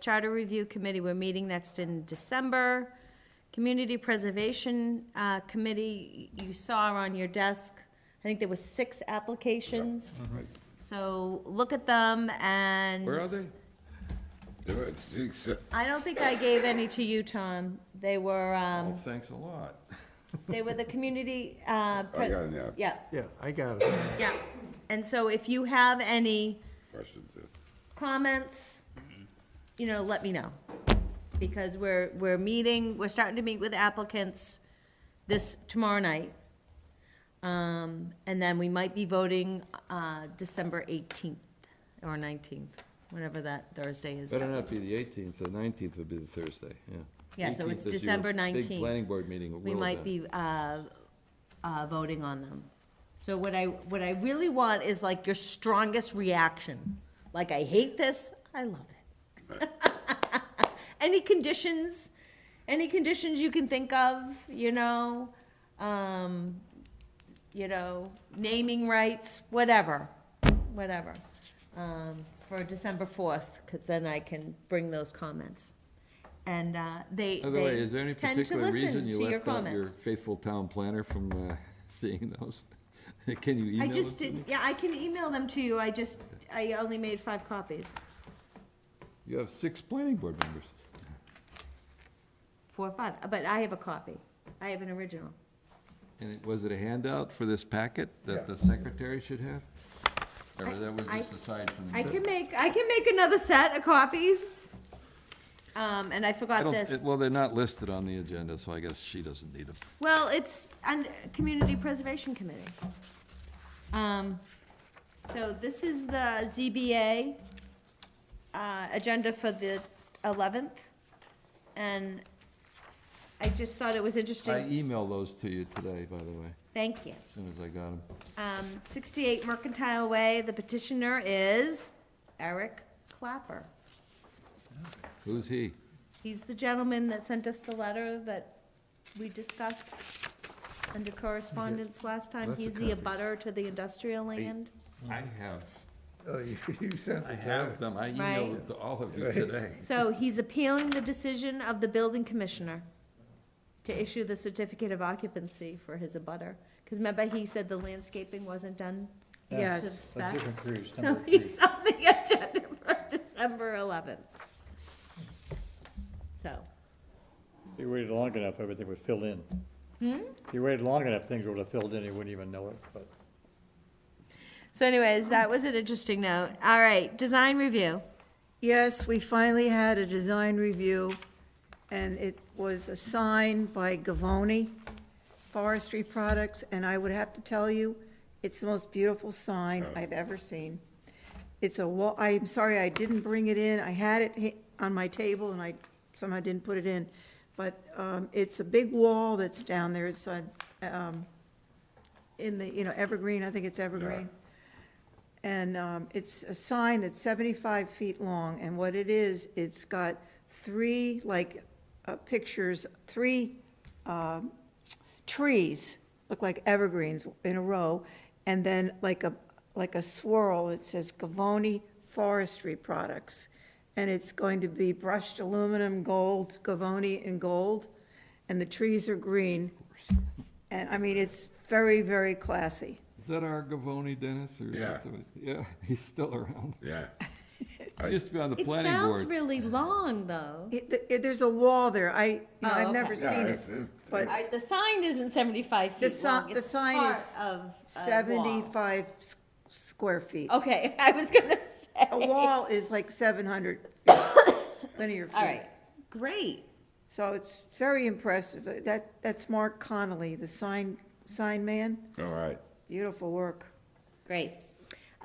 Charter Review Committee, we're meeting next in December. Community Preservation uh, Committee, you saw on your desk, I think there were six applications. So look at them and. Where are they? There are six, uh, I don't think I gave any to you, Tom. They were, Well, um, Oh, thanks a lot. they were the community, uh. I Oh, pre- got an app. Yeah, Yeah, I got it. yeah. And so if you have any questions. uh, comments, you know, let me know. Because we're, we're meeting, we're starting to meet with applicants this, tomorrow night. Um, and then we might be voting, uh, December eighteenth or nineteenth, whatever that Thursday is. Better not be the eighteenth, the nineteenth would be the Thursday, yeah. Yeah, so 18th it's is your December Big 19th. planning board meeting at we Willowdale. might be uh, uh, voting on them. So what I, what I really want is like your strongest reaction. Like, I hate this, I love it. Any conditions, any conditions you can think of, you know? um, You know, naming rights, whatever, whatever. um, For December 4th, because then I can bring those comments. And uh, they, By the way, they is there any tend to particular reason listen you to your left out your comments. faithful town planner from uh, seeing those? Can you I email just us? did, yeah, I can email them to you, I just, I only made five copies. You have six planning board members. Four or five, but I have a copy. I have an original. And it- was it a handout for this packet that the secretary should have? Or I- that was I- just aside from the... I can make, I can make another set of copies. Um, and I I forgot don't- this. it- Well, they're not listed on the agenda, so I guess she doesn't need them. Well, it's, and, Community Preservation Committee. Um, so this is the ZBA, uh, agenda for the eleventh. And I just thought it was I e- interesting. emailed those to you today, by the way, Thank you. as soon as I got them. Um, 68 Mercantile Way, the petitioner is Eric Clapper. Who's he? He's the gentleman that sent us the letter that we discussed under correspondence last time. Lots of He's the copies. abutter to the industrial land. I have, Oh, you you sent it. I have them, I emailed Right. them to all of you today. So he's appealing the decision of the building commissioner to issue the certificate of occupancy for his abutter. Because remember, he said the landscaping wasn't done to the Yes. specs? cruise, So he's on the agenda for December eleventh. So, If you waited long enough, everything would fill in. If you waited long enough, things would have filled in, you wouldn't even know it, but so anyways, that was an interesting note. All right, design review. Yes, we finally had a design review, and it was assigned by Gavoni Forestry Products, and I would have to tell you, it's the most beautiful sign I've ever seen. It's a wall, I'm sorry, I didn't bring it in, I had it hi- on my table, and I somehow didn't put it in, but um, it's a big wall that's down there, it's on, um, in the, you know, evergreen, I think it's evergreen. And um, it's a sign that's 75 feet long, and what it is, it's got three, like, uh, pictures, three um, trees, look like evergreens in a row, and then like a, like a swirl, it says Gavoni Forestry Products. And it's going to be brushed aluminum, gold, Gavoni in gold, and the trees are green. And, I mean, it's very, very classy. Is that our Gavoni Dennis or? is Yeah. somebody- Yeah, he's still around. Yeah, He used to be on the It planning sounds board. really long, though. It- th- it- There's a wall there. I, you know, Oh, I've okay. never seen Yeah, it, it's- it's- but All right, the sign isn't seventy-five The feet si- long. the It's sign part is of a wall. 75 s- square feet. Okay, I was gonna say. A wall is like 700 linear All feet. right, great. So it's very impressive. Uh, That, that's Mark Connolly, the sign, sign man. all right. Beautiful work. Great.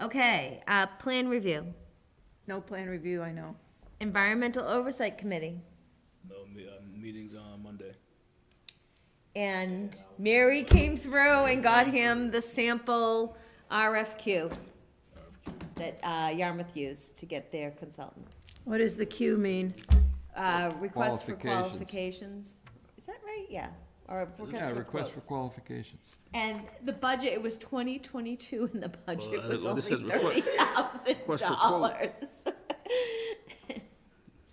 Okay, uh, plan review, No plan review, I know. environmental oversight committee, No, me- uh, meetings on Monday. and Mary came through and got him the sample RFQ that, uh, Yarmouth used to get their consultant. What does the Q mean? Uh, request for Qualifications. qualifications, is that right? Yeah, or Yeah, request request for quotes. for qualifications. And the budget, it was twenty twenty-two and the budget Well, was well, uh, only this says request- thirty thousand request for dollars. quote.